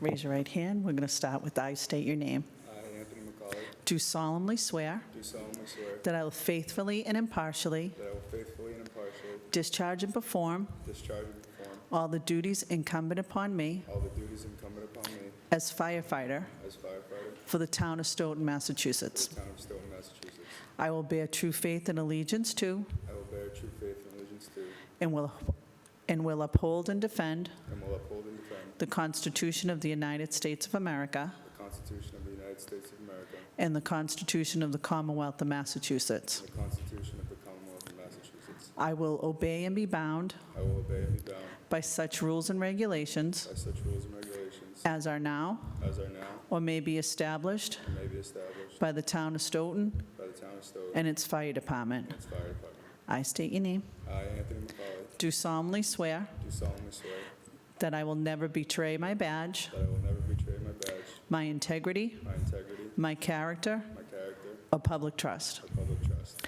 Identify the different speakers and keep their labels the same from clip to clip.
Speaker 1: Raise your right hand. We're going to start with I state your name.
Speaker 2: I, Uh, Anthony McCauley,
Speaker 1: Do solemnly swear
Speaker 2: do solemnly swear
Speaker 1: that I will faithfully and impartially
Speaker 2: that I will faithfully and impartially
Speaker 1: discharge and perform
Speaker 2: discharge and perform
Speaker 1: all the duties incumbent upon me
Speaker 2: all the duties incumbent upon me
Speaker 1: as firefighter
Speaker 2: as firefighter for
Speaker 1: for the town of Stoughton, Massachusetts.
Speaker 2: the town of Stoughton, Massachusetts.
Speaker 1: I will bear true faith and allegiance to
Speaker 2: I will bear true faith and allegiance to
Speaker 1: and will and will uphold and defend
Speaker 2: and will uphold and defend
Speaker 1: the Constitution of the United States of America
Speaker 2: the Constitution of the United States of America
Speaker 1: and the Constitution of the Commonwealth of Massachusetts.
Speaker 2: and the Constitution of the Commonwealth of Massachusetts.
Speaker 1: I will obey and be bound
Speaker 2: I will obey and be bound
Speaker 1: by such rules and regulations
Speaker 2: by such rules and regulations
Speaker 1: as are now
Speaker 2: as are now
Speaker 1: or may be established
Speaker 2: and may be established
Speaker 1: by the town of Stoughton
Speaker 2: by the town of Stoughton
Speaker 1: and its fire department.
Speaker 2: and its fire department.
Speaker 1: I state your name.
Speaker 2: I, Anthony McCauley,
Speaker 1: Do solemnly swear
Speaker 2: do solemnly swear
Speaker 1: that I will never betray my badge,
Speaker 2: that I will never betray my badge,
Speaker 1: my integrity,
Speaker 2: my integrity,
Speaker 1: my character,
Speaker 2: my character,
Speaker 1: or public trust.
Speaker 2: or public trust.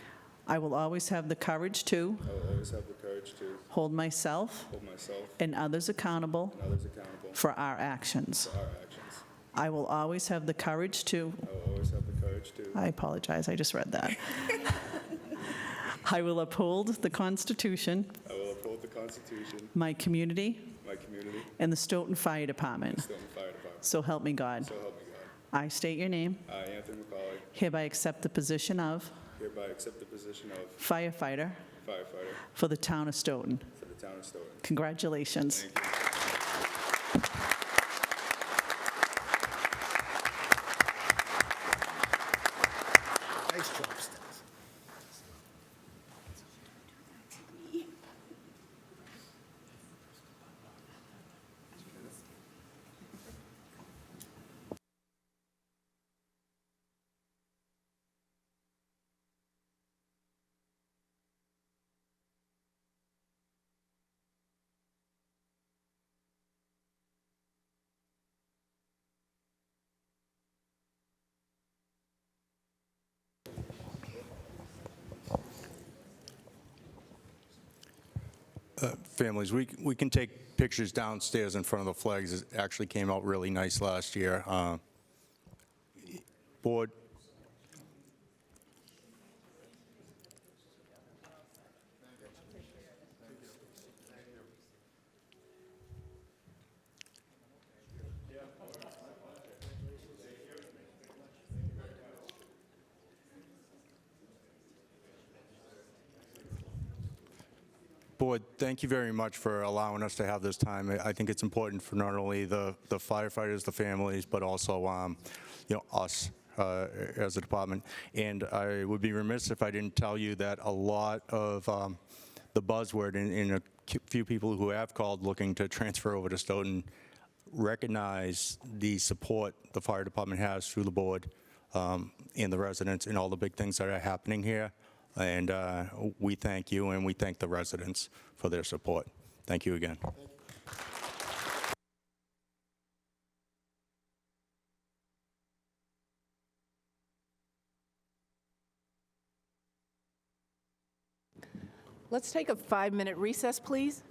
Speaker 1: I will always have the courage to
Speaker 2: I will always have the courage to
Speaker 1: hold myself
Speaker 2: hold myself
Speaker 1: and others accountable
Speaker 2: and others accountable
Speaker 1: for our actions.
Speaker 2: for our actions.
Speaker 1: I will always have the courage to,
Speaker 2: I will always have the courage to,
Speaker 1: I apologize, I just read that. I will uphold the Constitution,
Speaker 2: I will uphold the Constitution,
Speaker 1: my community,
Speaker 2: my community,
Speaker 1: and the Stoughton Fire
Speaker 2: and
Speaker 1: Department.
Speaker 2: Stoughton Fire Department.
Speaker 1: So help me God.
Speaker 2: So help me God.
Speaker 1: I state your name,
Speaker 2: I, Anthony McCauley,
Speaker 1: hereby accept the position of
Speaker 2: hereby accept the position of
Speaker 1: firefighter
Speaker 2: firefighter
Speaker 1: for the town of Stoughton.
Speaker 2: for the town of Stoughton.
Speaker 1: Congratulations.
Speaker 2: Thank you.
Speaker 3: Nice job, Stas.
Speaker 4: families. We, we can take pictures downstairs in front of the flags. It actually came out really nice last year. Uh, Board, Board, thank you very much for allowing us to have this time. I I think it's important for not only the the firefighters, the families, but also, um, you know, us uh, as a department. And I would be remiss if I didn't tell you that a lot of um, the buzzword, and- and a few people who have called looking to transfer over to Stoughton, recognize the support the fire department has through the board um, and the residents and all the big things that are happening here. And uh, we thank you and we thank the residents for their support. Thank you again.
Speaker 5: Let's take a five-minute recess, please.